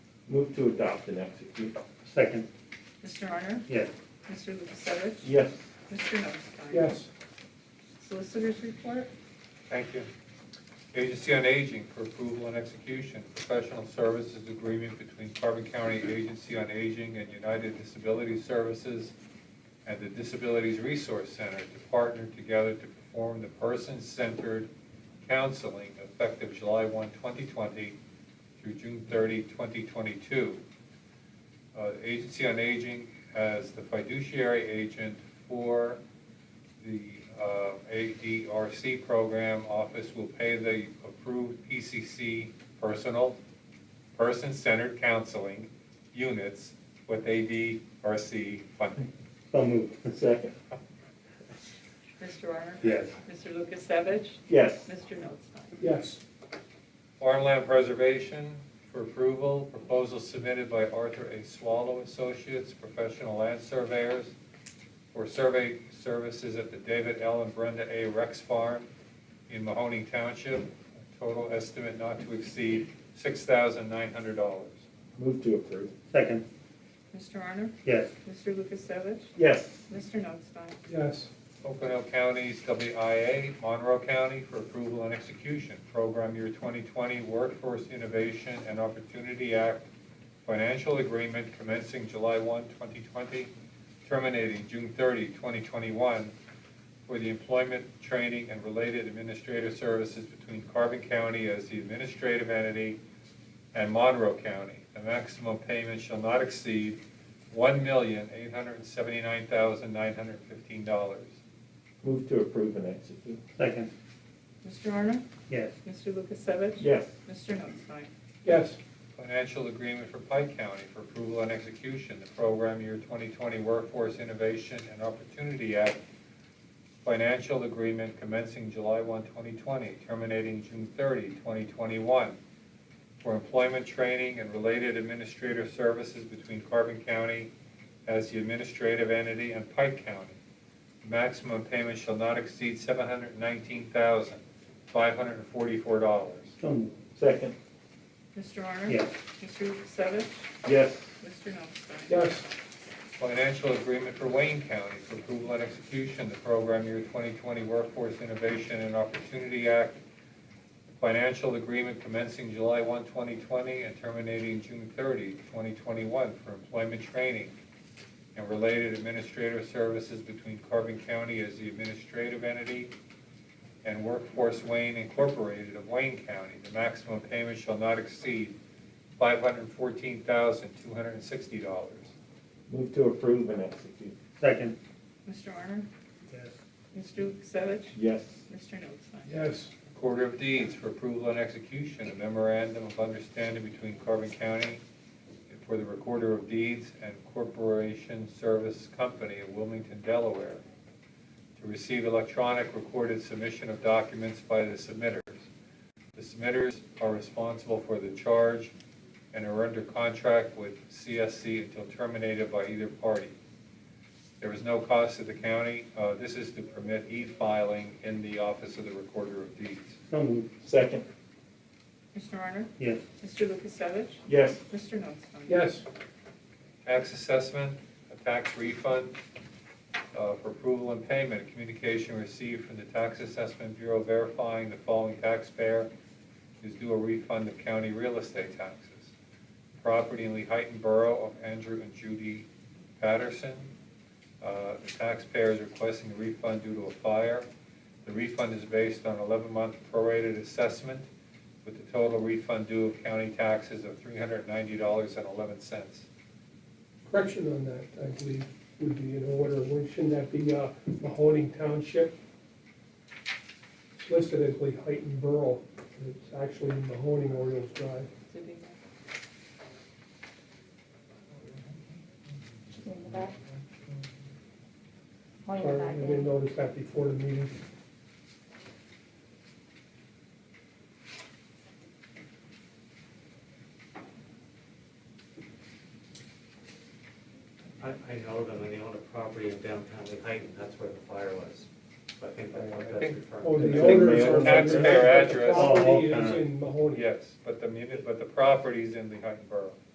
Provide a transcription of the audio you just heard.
Move to adopt and execute. Second, Mr. Honor? yes. Mr. Lukasevich? Yes. Mr. Notestein? yes, Solicitors report? Thank you. Agency on Aging for approval and execution, professional services agreement between Carbon County Agency on Aging and United Disability Services and the Disabilities Resource Center to partner together to perform the person-centered counseling effective July 1, 2020 through June 30, 2022. Uh, Agency on Aging as the fiduciary agent for the uh, ADRC program office will pay the approved PCC personal, person-centered counseling units with ADRC funding. So moved. Second. Mr. Honor? Yes. Mr. Lukasevich? Yes. Mr. Notestein? yes, Farmland preservation for approval, proposal submitted by Arthur A. Swallow Associates, professional land surveyors, for survey services at the David L. and Brenda A. Rex Farm in Mahoning Township. Total estimate not to exceed $6,900. Move to approve. Second, Mr. Honor? yes. Mr. Lukasevich? Yes. Mr. Notestein? yes, Oakdale County's WIA, Monroe County for approval and execution. Program Year 2020 Workforce Innovation and Opportunity Act Financial Agreement commencing July 1, 2020, terminating June 30, 2021, for the employment, training, and related administrative services between Carbon County as the administrative entity and Monroe County. The maximum payment shall not exceed one million, eight hundred and seventy-nine thousand, nine hundred and fifteen dollars. Move to approve and execute. Second, Mr. Honor? yes. Mr. Lukasevich? Yes. Mr. Notestein? yes, Financial agreement for Pike County for approval and execution, the program year twenty twenty Workforce Innovation and Opportunity Act financial agreement commencing July 1, 2020, terminating June 30, 2021, for employment training and related administrative services between Carbon County as the administrative entity and Pike County. Maximum payment shall not exceed $719,544. So moved. Second. Mr. Honor? Yes. Mr. Lukasevich? Yes. Mr. Notestein? yes, Financial agreement for Wayne County for approval and execution, the program year 2020 Workforce Innovation and Opportunity Act. Financial agreement commencing July 1, 2020 and terminating June 30, 2021 for employment training and related administrative services between Carbon County as the administrative entity and Workforce Wayne Incorporated of Wayne County. The maximum payment shall not exceed $514,260. Move to approve and execute. Second, Mr. Honor? yes. Mr. Lukasevich? Yes. Mr. Notestein? yes, Quarter of Deeds for approval and execution, a memorandum of understanding between Carbon County for the Recorder of Deeds and Corporation Service Company of Wilmington, Delaware, to receive electronic recorded submission of documents by the submitters. The submitters are responsible for the charge and are under contract with CSC until terminated by either party. There is no cost to the county. Uh, This is to permit e-filing in the Office of the Recorder of Deeds. So moved. Second. Mr. Honor? Yes. Mr. Lukasevich? Yes. Mr. Notestein? yes, Tax assessment, a tax refund uh, for approval and payment. A Communication received from the Tax Assessment Bureau verifying the following taxpayer is due a refund of county real estate taxes. Property in Lehighton Borough of Andrew and Judy Patterson. Uh, The taxpayer is requesting a refund due to a fire. The refund is based on 11-month prorated assessment with the total refund due of county taxes of $390.11. correction on that, I believe, would be in order, Wouldn't- shouldn't that be, uh, Mahoning Township? It's listed as Lee Heighton Borough, and it's actually Mahoning Orioles Drive, Did he- In the back. Oh, in the sorry, I back, yeah. didn't notice that before the meeting. I, I know them, and they own a property in downtown Manhattan, that's where the fire was. So I think that's what that's Oh, referring to. the Big owners mail. are. Taxpayer address. Property is Oh, okay. in Mahoning. Yes, but the, muni- but the property's in the Heighton Borough.